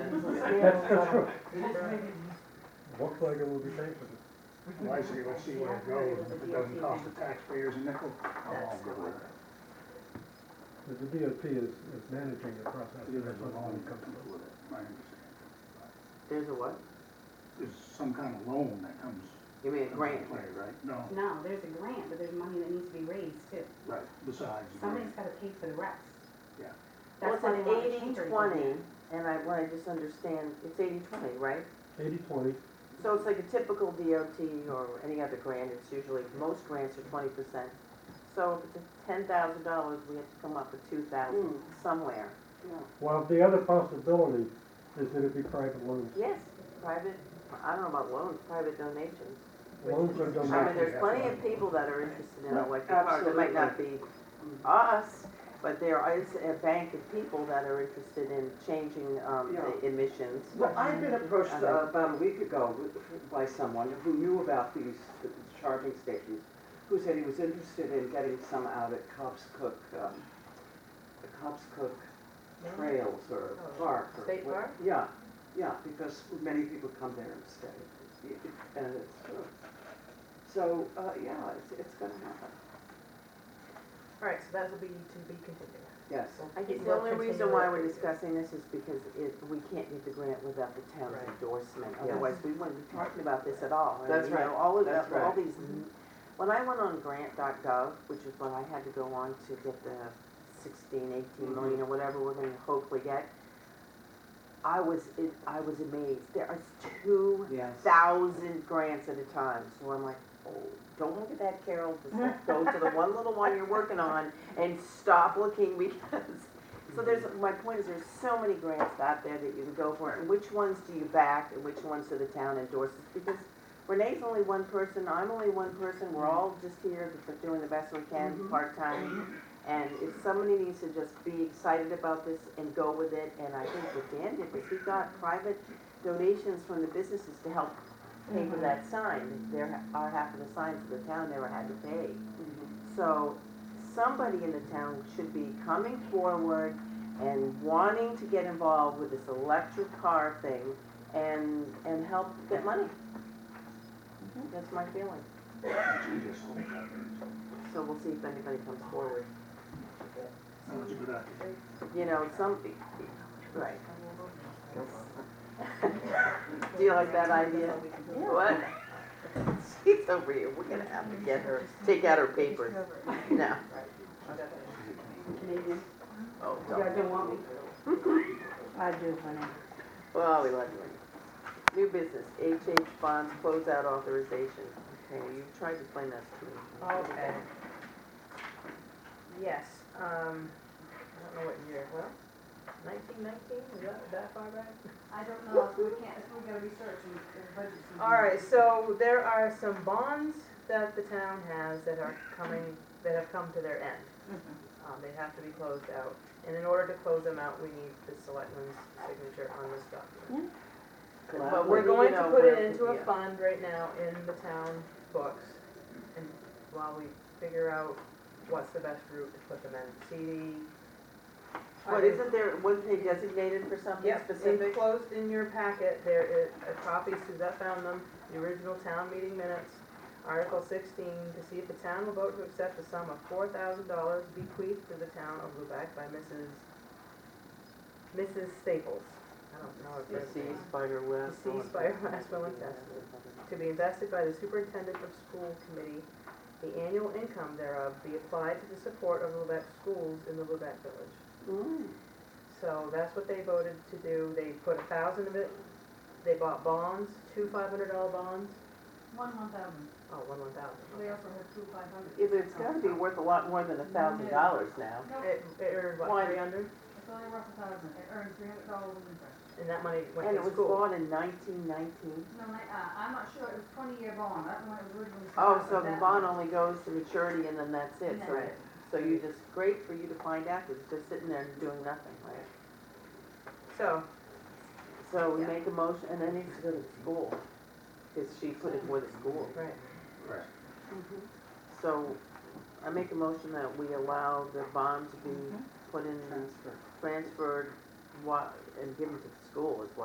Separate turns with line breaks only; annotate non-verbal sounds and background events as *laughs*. That's, that's true.
Looks like it will be paid for.
Wisely, let's see where it goes, and if it doesn't cost the taxpayers a nickel, I'll all go with it.
The the DOT is, is managing the process.
It is a loan that comes with it, I understand.
There's a what?
There's some kind of loan that comes
You mean a
into
grant?
play, right? No,
No, there's a grant, but there's money that needs to be raised too.
right, besides. the grant.
Somebody's gotta pay for the rest.
Yeah.
That's
Well, it's
why they
an
want to
eighty
change everything.
twenty, and I want to just understand, it's eighty twenty, right?
Eighty twenty,
So it's like a typical DOT or any other grant, it's usually, most grants are twenty percent. So if it's ten thousand dollars, we have to come up with two
Hmm.
thousand somewhere.
while the other possibility is that it be private loans.
Yes, private, I don't know about loans, private donations.
Loans are
I mean,
donated.
there's plenty of people that are interested in electric cars, it might not be us, but there is a bank of people that are interested in changing, um, the emissions.
Well, I've been approached
I
uh,
know.
about a week ago with- by someone who knew about these charging stations, who said he was interested in getting some out at Cobb's Cook, um, the Cobb's Cook Trails or Park. or
Oh, State
what-
Park?
Yeah, yeah, because many people come there and stay, It- it- and it's true. So, uh, yeah, it's, it's gonna happen,
All right, so that will be to be continued.
yes.
I think the only reason why we're discussing this is because it, we can't get the grant without the town's
Right.
endorsement,
Yes.
otherwise we wouldn't be talking about this at all. And,
That's
you know,
right.
All of,
That's
the- all
right. Mm-hmm.
these, when I went on grant.gov, which is what I had to go on to get the sixteen,
Mm-hmm.
eighteen million or whatever we're gonna hopefully get, I was, it- I was amazed, there are two
Yes.
thousand grants at a time, so I'm like, oh, don't look at that, Carol, just like, go to the one little one you're working on and stop looking *laughs* because, so there's, my point is there's so many grants out there that you can go for, and which ones do you back and which ones do the town endorses? Because Renee's only one person, I'm only one person, we're all just here just doing the best we can, part-time. And if somebody needs to just be excited about this and go with it, and I think what Dan did was he got private donations from the businesses to help pay for that sign. There are half of the signs of the town never had to pay. So somebody in the town should be coming forward and wanting to get involved with this electric car thing and, and help get money. That's my feeling.
You just Oh, hold that there.
So we'll see if anybody comes forward.
That was a good idea.
You know, some, right. Do you like that idea? What? *laughs* She's over here, we're gonna have to get her, take out her papers. No,
Megan,
oh,
you
don't.
guys don't want me? I do, honey.
Well, we love you. New business, HH bonds closeout authorization. Okay, well, you tried to explain that to me.
Okay. Yes, um, I don't know what year, well, nineteen nineteen, is that, that far back?
I don't know, so we can't, so we gotta research and and budget some.
All right, so there are some bonds that the town has that are coming, that have come to their end. Um, they have to be closed out, and in order to close them out, we need the selectman's signature on this document. But we're
Gladly,
going
you
to
know,
put it
we're-
into a
yeah.
fund right now in the town books, and while we figure out what's the best route to put them in, CD.
But isn't there, wasn't they designated for something
Yep,
specific?
enclosed in your packet, there is a copy, Suzette found them, the original town meeting minutes, Article sixteen, to see if the town will vote to accept a sum of four thousand dollars bequeathed to the town of Lubec by Mrs. Mrs. Staples. I don't know if that's
Deceased by her last. will and
Deceased by her last will and testament. to be invested by the superintendent of school committee, the annual income thereof be applied to the support of Lubec schools in the Lubec village.
Mm.
So that's what they voted to do, they put a thousand of it, they bought bonds, two five hundred dollar bonds,
One one thousand,
oh, one one thousand.
we also have two five hundred.
Yeah, but it's gotta be worth a lot more than a thousand dollars now.
No,
It, it earned
Why?
what, three hundred,
it's only worth a thousand, it earned three hundred dollars in interest.
and that money went
And it
to
was
school.
bought in nineteen nineteen.
No, I, uh, I'm not sure, it was twenty year bond, I don't know when it was originally. set
Oh,
up,
so
but
the
that-
bond only goes to maturity and then that's it,
and
so,
that-
so you just, great for you to find out, 'cause it's just sitting there and doing nothing, right?
So,
So we
Yeah.
make a motion, and then needs to go to school, because she put it for the school.
right,
Correct.
Mm-hmm. So I make a motion that we allow the bond to be put in,
Transfer.
transferred, wa- and given to the school as well.